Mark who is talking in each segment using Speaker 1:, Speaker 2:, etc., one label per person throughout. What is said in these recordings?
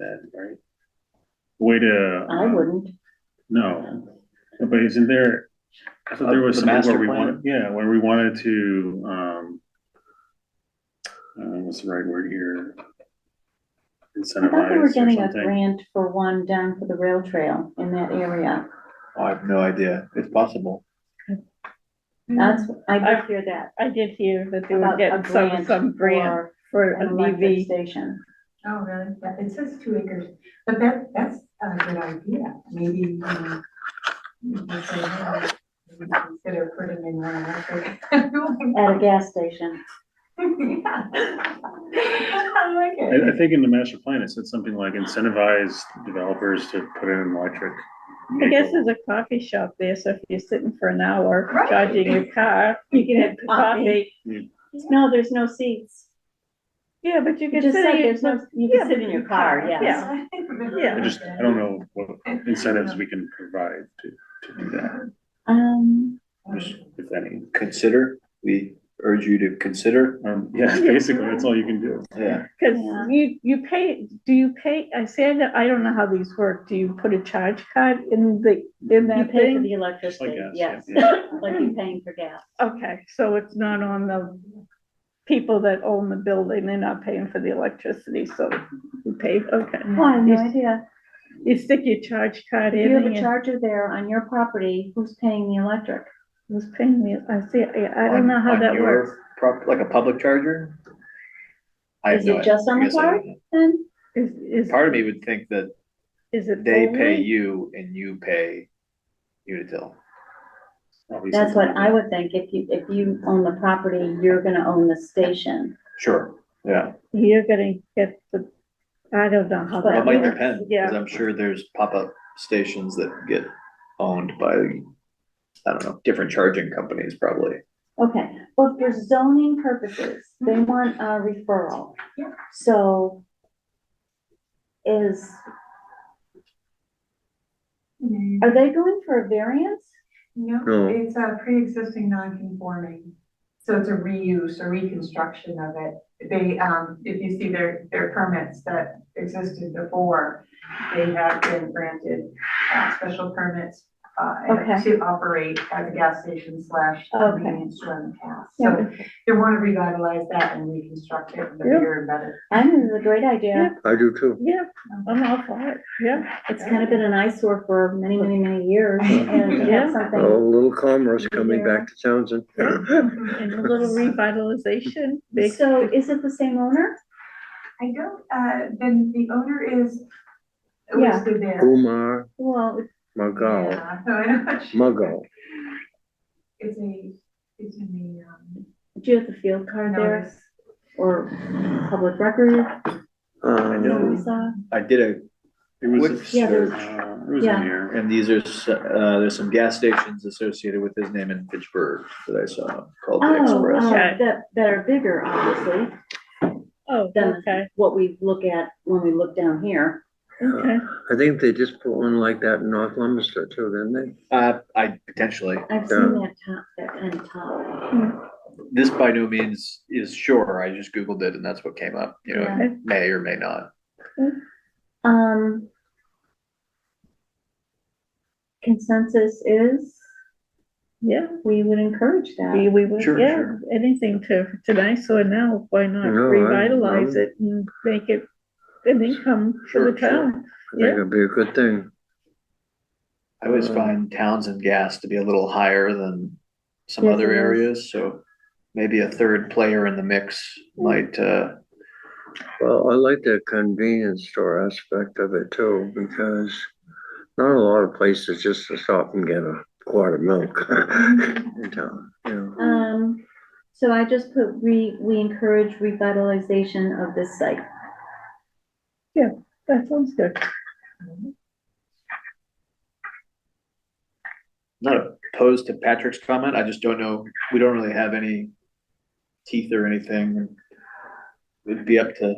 Speaker 1: that, right?
Speaker 2: way to.
Speaker 3: I
Speaker 2: uh,
Speaker 3: wouldn't.
Speaker 2: No, but isn't there, I thought there
Speaker 1: Uh,
Speaker 2: was
Speaker 1: the
Speaker 2: something
Speaker 1: master
Speaker 2: where we
Speaker 1: plan?
Speaker 2: wanted, yeah, where we wanted to, um. Uh, what's the right word here?
Speaker 3: I thought they were
Speaker 2: Incentivize or
Speaker 3: getting a
Speaker 2: something.
Speaker 3: grant for one down for the rail trail in that area.
Speaker 1: I have no idea. It's possible.
Speaker 3: That's, I
Speaker 4: I-
Speaker 3: did hear that.
Speaker 4: I did hear Mm-hmm. that they were
Speaker 3: about a
Speaker 4: getting some, some grant
Speaker 3: for
Speaker 4: for
Speaker 3: An
Speaker 4: an
Speaker 3: electric
Speaker 4: EV.
Speaker 3: station.
Speaker 5: Oh, really? Yeah, it says two acres, but that, that's a good idea. Maybe, um, we say, hey, we consider putting in one electric.
Speaker 4: Oh.
Speaker 3: At a gas station.
Speaker 5: I like
Speaker 2: I, I
Speaker 5: it.
Speaker 2: think in the master plan, it said something like incentivize developers to put in an electric.
Speaker 4: I guess
Speaker 2: vehicle.
Speaker 4: there's a coffee shop there, so if you're sitting for an hour
Speaker 5: Right.
Speaker 4: charging your car, you can have coffee.
Speaker 3: No, there's no seats.
Speaker 4: Yeah, but you
Speaker 3: You
Speaker 4: can
Speaker 3: just
Speaker 4: sit,
Speaker 3: said
Speaker 4: in
Speaker 3: there's
Speaker 4: your-
Speaker 3: no, you
Speaker 4: yeah,
Speaker 3: can sit
Speaker 4: but
Speaker 3: in your car, yes.
Speaker 4: yeah. Yeah.
Speaker 2: I just, I don't know what incentives we can provide to, to do that,
Speaker 3: Um,
Speaker 2: if any.
Speaker 1: Consider, we urge you to consider,
Speaker 2: Um, yeah, basically, that's all you can do.
Speaker 1: yeah.
Speaker 4: cause
Speaker 3: Yeah.
Speaker 4: you, you pay, do you pay, I say that, I don't know how these work, do you put a charge card in the, in
Speaker 3: you pay
Speaker 4: that
Speaker 3: for
Speaker 4: thing?
Speaker 3: the
Speaker 2: Just like
Speaker 3: electricity,
Speaker 2: gas, yeah.
Speaker 3: yes, like you're paying for gas.
Speaker 4: Okay, so it's not on the people that own the building, they're not paying for the electricity, so you pay, okay.
Speaker 3: Oh, I have no
Speaker 4: You-
Speaker 3: idea.
Speaker 4: You stick your charge card
Speaker 3: If
Speaker 4: in
Speaker 3: you have a
Speaker 4: and
Speaker 3: charger there on your property, who's paying the electric?
Speaker 4: who's paying me, I see, I, I don't know how
Speaker 1: On- on
Speaker 4: that
Speaker 1: your
Speaker 4: works.
Speaker 1: prop- Like a public charger? I have
Speaker 3: Is
Speaker 1: no
Speaker 3: it
Speaker 1: idea.
Speaker 3: just on
Speaker 1: I
Speaker 3: the
Speaker 1: guess I don't
Speaker 3: card?
Speaker 1: know.
Speaker 3: Then,
Speaker 4: Is, is,
Speaker 1: Part of me would think that
Speaker 4: is it
Speaker 1: they pay
Speaker 4: only?
Speaker 1: you and you pay Unitil.
Speaker 2: Obviously,
Speaker 3: that's what I would think, if you, if you own the property, you're gonna own the station.
Speaker 1: Sure, yeah.
Speaker 4: You're gonna get the, I don't know how
Speaker 3: But
Speaker 1: It
Speaker 4: that
Speaker 1: might
Speaker 4: works.
Speaker 1: depend, because
Speaker 4: Yeah.
Speaker 1: I'm sure there's pop-up stations that get owned by, I don't know, different charging companies probably.
Speaker 3: Okay, well, for zoning purposes, they
Speaker 4: Mm-hmm.
Speaker 3: want a referral.
Speaker 5: Yeah.
Speaker 3: So is, are they going for a variance?
Speaker 5: No,
Speaker 1: No.
Speaker 5: it's a pre-existing non-conforming, so it's a reuse or reconstruction of it. They, um, if you see their, their permits that existed before, they have been granted, uh, special permits, uh,
Speaker 3: Okay.
Speaker 5: to operate as a gas station slash
Speaker 3: Okay.
Speaker 4: Mm-hmm.
Speaker 5: convenience store in the past. So
Speaker 4: Yeah.
Speaker 5: they want to revitalize that and reconstruct it, the
Speaker 4: Yeah.
Speaker 5: bigger and better.
Speaker 3: I think it's a great idea.
Speaker 1: I do too.
Speaker 4: Yeah, I'm all for it, yeah.
Speaker 3: It's kind of been an eyesore for many, many, many years and to have
Speaker 4: Yeah.
Speaker 6: A
Speaker 3: something.
Speaker 6: little commerce coming
Speaker 3: Yeah.
Speaker 6: back to Townsend.
Speaker 4: And a little revitalization, big,
Speaker 3: So is it the same owner?
Speaker 5: I don't, uh, then the owner is
Speaker 3: Yeah.
Speaker 5: listed there.
Speaker 6: Umar
Speaker 3: Well, it's-
Speaker 6: Magal,
Speaker 5: Yeah, so I'm not sure.
Speaker 6: Magal.
Speaker 5: It's a, it's in the, um,
Speaker 3: do you have the field card there
Speaker 5: notice.
Speaker 3: or public record?
Speaker 1: Um,
Speaker 3: we saw?
Speaker 1: I did a
Speaker 2: It was,
Speaker 1: Which-
Speaker 3: Yeah, there
Speaker 2: uh,
Speaker 3: was-
Speaker 2: it was in
Speaker 3: yeah.
Speaker 2: here.
Speaker 1: And these are, s- uh, there's some gas stations associated with his name in Pittsburgh that I saw called the
Speaker 3: Oh, uh,
Speaker 1: Express.
Speaker 4: Okay.
Speaker 3: that, that are bigger, obviously,
Speaker 4: oh,
Speaker 3: than
Speaker 4: okay,
Speaker 3: what we look at when we look down here.
Speaker 4: okay.
Speaker 6: I think they just put one like that in North Leominster too, didn't they?
Speaker 1: Uh, I potentially,
Speaker 3: I've seen that top, that end top.
Speaker 1: this by no means is sure, I just Googled it and that's what came up, you know,
Speaker 3: Yeah.
Speaker 1: it may or may not.
Speaker 3: Um. Consensus is,
Speaker 4: Yeah,
Speaker 3: we would encourage
Speaker 4: we,
Speaker 3: that.
Speaker 4: we would,
Speaker 1: Sure,
Speaker 4: yeah,
Speaker 1: sure.
Speaker 4: anything to, tonight, so now, why not
Speaker 6: No, I-
Speaker 4: revitalize
Speaker 6: I'm-
Speaker 4: it and make it an income for
Speaker 1: Sure,
Speaker 4: the
Speaker 1: sure.
Speaker 4: town?
Speaker 6: I think it'd be a good thing.
Speaker 1: I always
Speaker 6: Uh.
Speaker 1: find towns and gas to be a little higher than some
Speaker 3: Yes,
Speaker 1: other
Speaker 3: it is.
Speaker 1: areas, so maybe a third player in the mix might, uh,
Speaker 6: Well, I like the convenience store aspect of it too, because not a lot of places just to stop and get a quart of milk
Speaker 5: um,
Speaker 6: in town, you know.
Speaker 3: Um, so I just put we, we encourage revitalization of this site.
Speaker 4: That sounds good.
Speaker 1: not opposed to Patrick's comment, I just don't know, we don't really have any teeth or anything. It'd be up to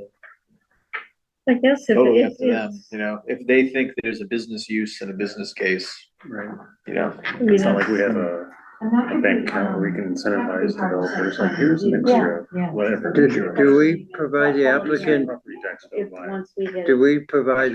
Speaker 4: I guess if
Speaker 1: totally up
Speaker 4: it
Speaker 1: to them,
Speaker 4: is,
Speaker 1: you know, if they think there's a business use and a business case,
Speaker 2: Right.
Speaker 1: you know,
Speaker 4: you
Speaker 2: It's not
Speaker 4: know,
Speaker 2: like we have a
Speaker 5: And that
Speaker 2: I
Speaker 5: could
Speaker 2: think
Speaker 5: be,
Speaker 2: uh, we
Speaker 5: um,
Speaker 2: can incentivize developers, like, here's an extra, whatever.
Speaker 6: Did, do we provide
Speaker 2: Property
Speaker 6: the
Speaker 2: tax,
Speaker 6: applicant,
Speaker 2: property tax, don't
Speaker 3: if,
Speaker 2: buy it.
Speaker 3: once we get.
Speaker 6: do we provide